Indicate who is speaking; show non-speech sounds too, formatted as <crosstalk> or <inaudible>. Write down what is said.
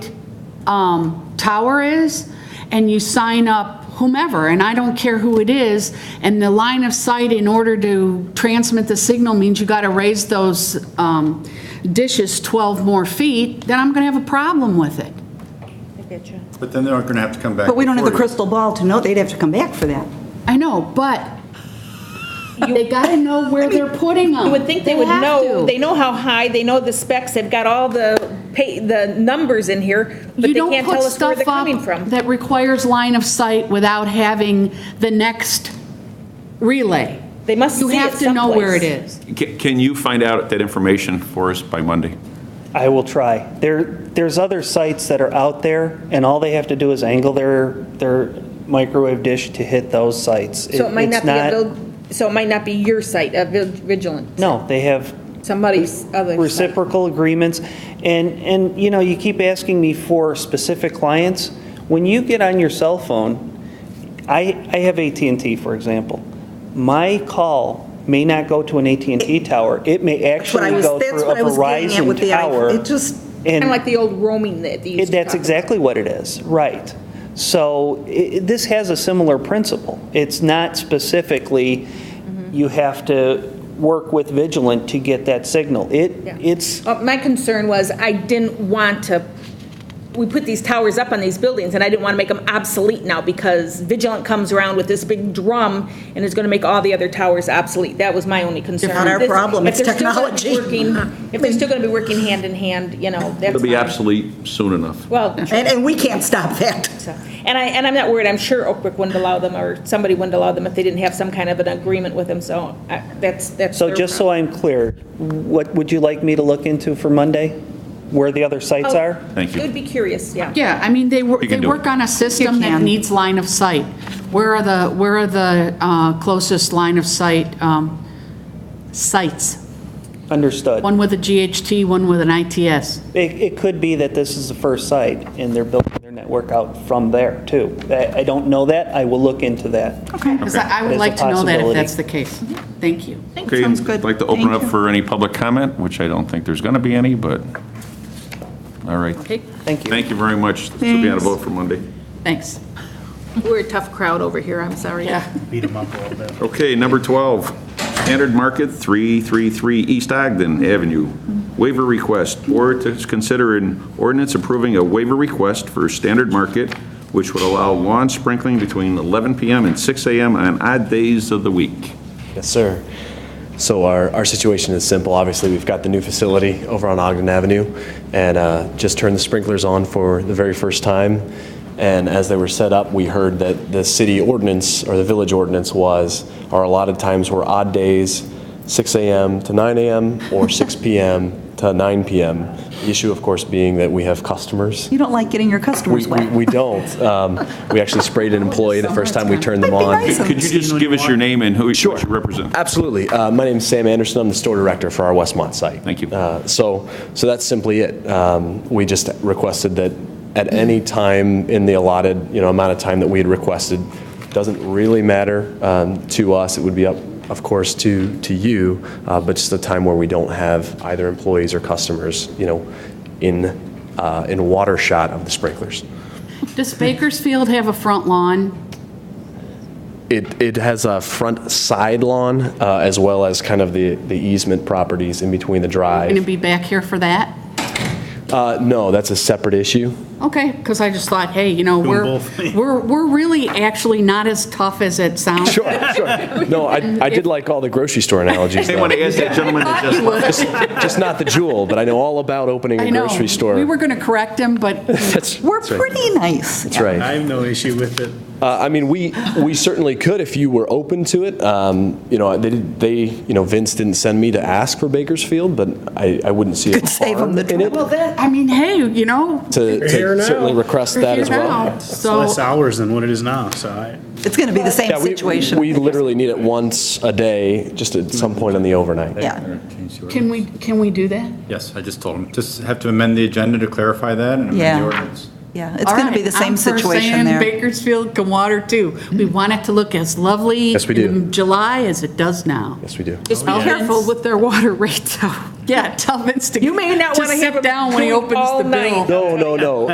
Speaker 1: um, tower is, and you sign up whomever, and I don't care who it is, and the line of sight in order to transmit the signal means you got to raise those um, dishes 12 more feet, then I'm going to have a problem with it.
Speaker 2: I get you.
Speaker 3: But then they're going to have to come back.
Speaker 4: But we don't have the
Speaker 3: before you.
Speaker 4: crystal ball to know, they'd have to come back for that.
Speaker 1: I know, but they got to know where they're putting them.
Speaker 2: You would think they would know, they know how high, they know the specs, they've got all the pay, the numbers in here, but
Speaker 1: You
Speaker 2: they
Speaker 1: don't
Speaker 2: can't
Speaker 1: put
Speaker 2: tell us
Speaker 1: stuff
Speaker 2: where they're coming
Speaker 1: up
Speaker 2: from.
Speaker 1: that requires line of sight without having the next relay.
Speaker 2: They must
Speaker 1: You
Speaker 2: see
Speaker 1: have
Speaker 2: it
Speaker 1: to know where it
Speaker 2: someplace.
Speaker 1: is.
Speaker 5: Ca- Can you find out that information for us by Monday?
Speaker 6: I will try. There, there's other sites that are out there, and all they have to do is angle their, their microwave dish to hit those sites.
Speaker 2: So it might
Speaker 6: it's
Speaker 2: not be, a vil- so it might not be your site, a vil- vigilant.
Speaker 6: No, they have
Speaker 2: Somebody's other. site.
Speaker 6: reciprocal agreements, and, and, you know, you keep asking me for specific clients. When you get on your cell phone, I, I have at and T, for example. My call may not go to an at and T tower. It may
Speaker 4: what I
Speaker 6: actually
Speaker 4: was-
Speaker 6: go
Speaker 4: that's
Speaker 6: through a
Speaker 4: what I was getting at with
Speaker 6: Verizon
Speaker 4: the i-
Speaker 6: tower.
Speaker 4: it just-
Speaker 2: Kind
Speaker 6: and-
Speaker 2: of like the old roaming that they used
Speaker 6: It-
Speaker 2: to
Speaker 6: That's
Speaker 2: talk about.
Speaker 6: exactly what it is, right. So i- i- this has a similar principle. It's not specifically, you have to work with Vigilant to get that signal. It,
Speaker 2: Yeah.
Speaker 6: it's,
Speaker 2: Uh, My concern was I didn't want to, we put these towers up on these buildings, and I didn't want to make them obsolete now because Vigilant comes around with this big drum and is going to make all the other towers obsolete. That was my only concern.
Speaker 4: It's not our
Speaker 2: This-
Speaker 4: problem,
Speaker 2: if
Speaker 4: it's
Speaker 2: they're still gonna be
Speaker 4: technology. <laughs>
Speaker 2: working- If they're still going to be working hand in hand, you know, that's.
Speaker 5: It'll be
Speaker 2: fine.
Speaker 5: obsolete soon enough.
Speaker 4: <laughs>
Speaker 2: Well,
Speaker 4: And, and we can't stop that.
Speaker 2: so, and I, and I'm not worried. I'm sure Oakbrook wouldn't allow them, or somebody wouldn't allow them if they didn't have some kind of an agreement with them, so I- that's, that's.
Speaker 6: so
Speaker 2: their
Speaker 6: just so
Speaker 2: problem.
Speaker 6: I'm clear, what would you like me to look into for Monday? Where the other sites
Speaker 2: Oh,
Speaker 6: are?
Speaker 5: Thank you.
Speaker 2: It would be curious, yeah.
Speaker 1: Yeah, I mean, they work,
Speaker 5: You can
Speaker 1: they
Speaker 5: do it.
Speaker 1: work on a system that
Speaker 4: can.
Speaker 1: needs line of sight. Where are the, where are the uh, closest line of sight um, sites?
Speaker 6: Understood.
Speaker 1: One with a GHT, one with an ITS.
Speaker 6: It, it could be that this is the first site, and they're building their network out from there, too. I, I don't know that, I will look into that.
Speaker 4: Okay.
Speaker 1: Because I I
Speaker 6: That is
Speaker 1: would
Speaker 6: a
Speaker 1: like to know that if
Speaker 6: possibility.
Speaker 1: that's the case. Thank you.
Speaker 5: Okay,
Speaker 4: Sounds good.
Speaker 5: I'd like to open it
Speaker 4: Thank
Speaker 5: up
Speaker 4: you.
Speaker 5: for any public comment, which I don't think there's going to be any, but, all right.
Speaker 1: Okay,
Speaker 6: Thank you.
Speaker 5: Thank you very much. This will be on a
Speaker 4: Thanks.
Speaker 5: vote for Monday.
Speaker 1: thanks.
Speaker 2: We're a tough crowd over here, I'm sorry.
Speaker 1: Yeah.
Speaker 5: Okay, number 12, Standard Market, 333 East Ogden Avenue. Waiver request, board to consider an ordinance approving a waiver request for Standard Market, which would allow lawn sprinkling between 11 PM and 6 AM on odd days of the week.
Speaker 7: Yes, sir. So our, our situation is simple. Obviously, we've got the new facility over on Ogden Avenue and uh, just turned the sprinklers on for the very first time. And as they were set up, we heard that the city ordinance or the village ordinance was, or a lot of times were odd days, 6 AM to 9 AM or 6 PM to 9 PM. The issue, of course, being that we have customers.
Speaker 4: You don't like getting your customers
Speaker 7: We, we,
Speaker 4: wet.
Speaker 7: we don't. Um, we actually sprayed an employee the first time we turned them
Speaker 4: Might be
Speaker 7: on.
Speaker 4: nice.
Speaker 5: Could you just give us your name and who you what you represent?
Speaker 7: Absolutely. Uh, My name's Sam Anderson. I'm the store director for our Westmont site.
Speaker 5: Thank you.
Speaker 7: Uh, So, so that's simply it. Um, We just requested that at any time in the allotted, you know, amount of time that we had requested, doesn't really matter um, to us. It would be up, of course, to, to you, uh, but just a time where we don't have either employees or customers, you know, in, uh, in water shot of the sprinklers.
Speaker 1: Does Bakersfield have a front lawn?
Speaker 7: It, it has a front side lawn uh, as well as kind of the, the easement properties in between the drive.
Speaker 1: Going to be back here for that?
Speaker 7: Uh, no, that's a
Speaker 1: <laughs>
Speaker 7: separate issue.
Speaker 1: Okay, because I just thought, hey, you know, we're, we're, we're really actually not as tough as it sounds.
Speaker 7: Sure, sure. No, I, I did like all the grocery store analogies,
Speaker 5: They want
Speaker 7: though.
Speaker 5: to ask that
Speaker 1: <laughs>
Speaker 5: gentleman to just...
Speaker 7: Just, just not the jewel, but I know all about opening
Speaker 1: I
Speaker 7: a
Speaker 1: know.
Speaker 7: grocery store.
Speaker 1: We were going to correct him, but
Speaker 7: That's-
Speaker 4: We're
Speaker 7: that's right.
Speaker 4: pretty nice.
Speaker 7: That's right.
Speaker 8: I have no issue with it.
Speaker 7: Uh, I mean, we, we certainly could if you were open to it. Um, You know, they, did- they, you know, Vince didn't send me to ask for Bakersfield, but I, I wouldn't see a
Speaker 4: Could save them
Speaker 7: harm
Speaker 4: the
Speaker 7: in it
Speaker 4: trouble.
Speaker 1: I mean, hey, you know,
Speaker 7: to to
Speaker 8: Here now.
Speaker 7: certainly request
Speaker 1: we're
Speaker 7: that
Speaker 1: here
Speaker 7: as well.
Speaker 1: now,
Speaker 8: It's
Speaker 4: Oh.
Speaker 8: less
Speaker 1: so,
Speaker 8: hours than what it is now, so I,
Speaker 4: It's going to be the same
Speaker 7: Yeah, we-
Speaker 4: situation.
Speaker 7: We literally need it once a day, just at some point in the overnight.
Speaker 4: Yeah.
Speaker 1: can we, can we do that?
Speaker 3: Yes, I just told him, just have to amend the agenda to clarify that and amend
Speaker 4: Yeah.
Speaker 3: the ordinance.
Speaker 4: Yeah, it's going to be the
Speaker 1: All right, I'm
Speaker 4: same
Speaker 1: for
Speaker 4: situation
Speaker 1: saying
Speaker 4: there.
Speaker 1: Bakersfield can water too. We
Speaker 2: Mm-hmm.
Speaker 1: want it to look as lovely.
Speaker 7: Yes, we do.
Speaker 1: In July as it does now.
Speaker 7: Yes, we do.
Speaker 2: Just be
Speaker 1: Be careful
Speaker 2: careful
Speaker 1: with their water rates though. <laughs> Yeah, tell Vince to.
Speaker 2: You may not
Speaker 1: to
Speaker 2: wanna have
Speaker 1: sit
Speaker 2: him
Speaker 1: down when he
Speaker 2: doing
Speaker 1: opens
Speaker 2: all
Speaker 1: the bill.
Speaker 2: night.
Speaker 7: No, no, no.